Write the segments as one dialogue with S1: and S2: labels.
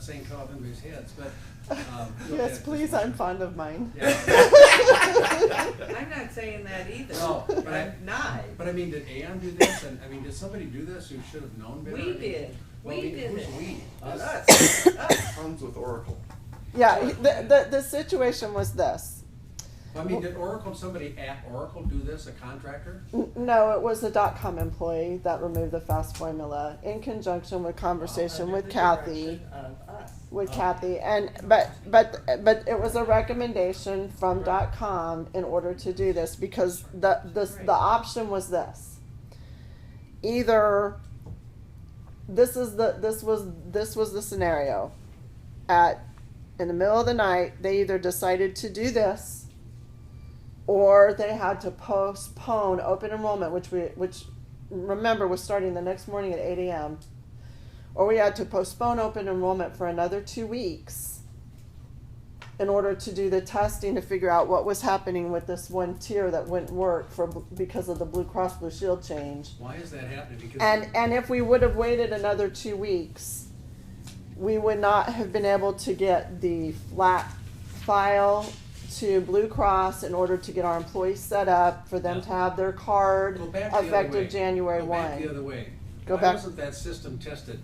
S1: saying cut off anybody's heads, but. um, look at
S2: Yes,
S1: it
S2: please,
S1: this way.
S2: I'm fond of mine.
S1: Yeah.
S3: I'm not saying that either.
S1: No, but I-
S3: I'm not.
S1: But I mean, did Aon do this? And, I mean, did somebody do this who should have known better? I
S3: We
S1: mean,
S3: did.
S1: well,
S3: We
S1: I mean,
S3: did
S1: Who's
S3: it.
S1: we?
S3: Us, us.
S4: Comes with Oracle.
S2: Yeah, he- the, the, the situation was this.
S1: I mean, did Oracle, somebody at Oracle do this, a contractor?
S2: N- No, it was a dot-com employee that removed the FAST formula in conjunction with conversation
S3: Under
S2: with
S3: Oh, the
S2: Kathy.
S3: direction Of us.
S2: With
S1: Oh.
S2: Kathy and, but, but, but it was a recommendation from dot com in order to do this because the, the,
S3: Right.
S2: the option was this. Either, this is the, this was, this was the scenario. At, in the middle of the night, they either decided to do this or they had to postpone open enrollment, which we, which, remember, was starting the next morning at eight AM. Or we had to postpone open enrollment for another two weeks in order to do the testing to figure out what was happening with this one tier that wouldn't work for, because of the Blue Cross Blue Shield change.
S1: Why is that happening? Because
S2: And, and if we would have waited another two weeks, we would not have been able to get the flat file to Blue Cross in order to get our employees set up for them to have their card
S1: Go back the other way.
S2: effective January
S1: Go
S2: one.
S1: back the other way.
S2: Go
S1: Why
S2: back-
S1: wasn't that system tested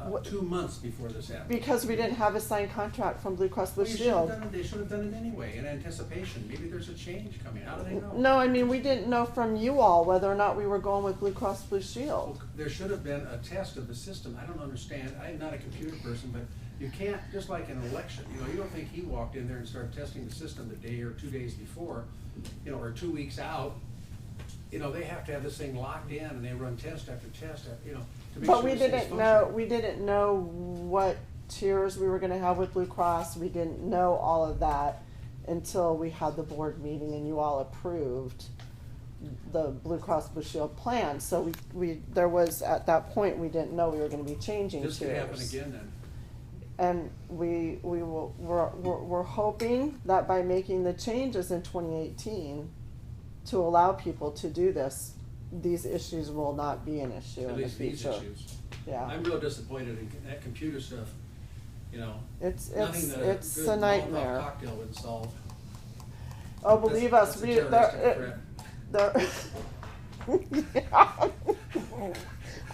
S1: uh,
S2: What-
S1: two months before this happened?
S2: Because we didn't have a signed contract from Blue Cross Blue
S1: Well, you should have
S2: Shield.
S1: done it, they should have done it anyway, in anticipation. Maybe there's a change coming. How do they know?
S2: No, I mean, we didn't know from you all whether or not we were going with Blue Cross Blue
S1: Well,
S2: Shield.
S1: Oh, There should have been a test of the system. I don't understand. I'm not a computer person, but you can't, just like an election, you know, you don't think he walked in there and started testing the system the day or two days before, you know, or two weeks out. You know, they have to have this thing locked in and they run test after test, after you know, to make sure
S2: But we
S1: this thing's
S2: didn't know,
S1: functioning.
S2: we didn't know what tiers we were gonna have with Blue Cross. We didn't know all of that until we had the board meeting and you all approved the Blue Cross Blue Shield plan. So we, we, there was, at that point, we didn't know we were gonna be changing tiers.
S1: This could happen again then.
S2: And we, we will, we're, we're, we're hoping that by making the changes in twenty eighteen to allow people to do this, these issues will not be an issue
S1: At
S2: in the
S1: least these
S2: future.
S1: issues.
S2: Yeah,
S1: I'm real disappointed in that computer stuff, you know.
S2: it's, it's,
S1: Nothing that a
S2: it's
S1: good
S2: a
S1: Molotov
S2: nightmare.
S1: Cocktail would solve.
S2: Oh, believe
S1: That's-
S2: us,
S1: that's a
S2: we,
S1: terroristic
S2: there,
S1: threat.
S2: it, there. Yeah.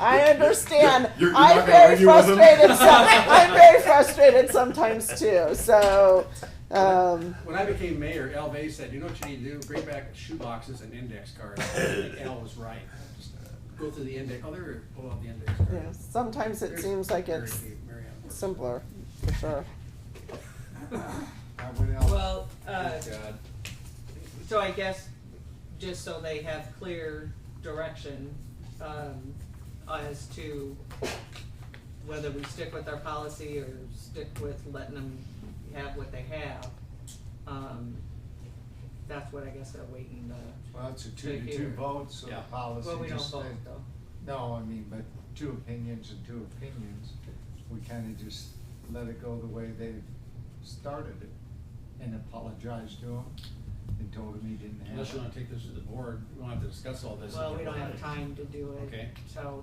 S2: I understand,
S4: You're- you're
S2: I'm
S4: not gonna
S2: very
S4: argue with him?
S2: frustrated some, I'm very frustrated sometimes too, so, um.
S1: When I became mayor, Al Bay said, you know what you need to do? Bring back shoeboxes and index cards. I think Al was right. Just Go through the index, oh, there, pull out the index card.
S2: Yeah, sometimes it
S1: There's
S2: seems like
S1: Mary
S2: it's
S1: Kay- Mary Ann Moore.
S2: simpler, for sure.
S3: Well, uh,
S1: Good God.
S3: so I guess, just so they have clear direction, um, as to whether we stick with our policy or stick with letting them have what they have, um, that's what I guess they're waiting to.
S5: Well, it's a two to two
S3: Here.
S5: vote, so the
S1: Yeah.
S5: policy
S3: Well, we don't
S5: just
S3: vote
S5: stayed-
S3: though.
S5: No, I mean, but two opinions and two opinions, we kinda just let it go the way they started it and apologized to him and told him he didn't have
S1: Unless you wanna
S5: it.
S1: take this to the board, we don't have to discuss all this.
S3: Well, we don't have time to do it.
S1: Okay.
S3: So,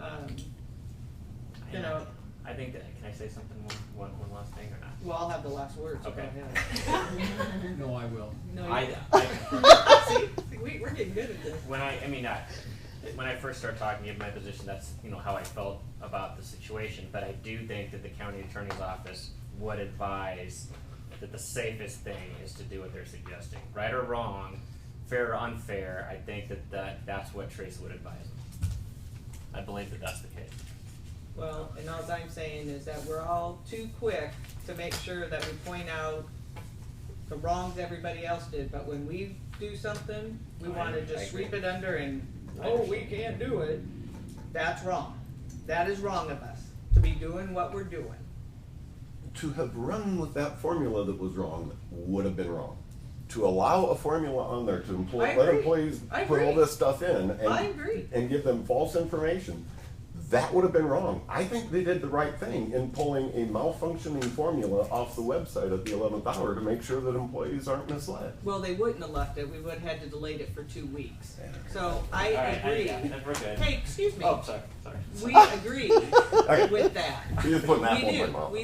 S3: um,
S6: I-
S3: You know-
S6: I think that, can I say something, one, one, one last thing or not?
S3: well, I'll have the last words. Go
S6: Okay.
S3: ahead.
S1: No, I will.
S3: No, you-
S6: I, I,
S3: See, we, we're getting good at this.
S6: when I, I mean, I, when I first started talking, in my position, that's, you know, how I felt about the situation, but I do think that the county attorney's office would advise that the safest thing is to do what they're suggesting, right or wrong, fair or unfair, I think that, that, that's what Teresa would advise. I believe that that's the case.
S3: Well, and all I'm saying is that we're all too quick to make sure that we point out the wrongs everybody else did, but when we do something, we
S6: I-
S3: wanna
S6: I
S3: just
S6: agree.
S3: sweep it under and,
S6: I
S3: oh, we
S6: understand.
S3: can't do it. That's wrong. That is wrong of us, to be doing what we're doing.
S4: To have run with that formula that was wrong would have been wrong. To allow a formula on there to
S3: I
S4: employ, let
S3: agree.
S4: employees
S3: I
S4: put all
S3: agree.
S4: this stuff in and.
S3: I agree.
S4: And give them false information, that would have been wrong. I think they did the right thing in pulling a malfunctioning formula off the website at the eleventh hour to make sure that employees aren't misled.
S3: Well, they wouldn't have left it, we would've had to delay it for two weeks. So I
S6: All right,
S3: agree.
S6: I, I, we're good.
S3: Hey, excuse me,
S6: Oh, sorry, sorry.
S3: we agree
S4: Okay.
S3: with that.
S4: You just put an
S3: We
S4: apple in my
S3: do.
S4: mouth.
S3: We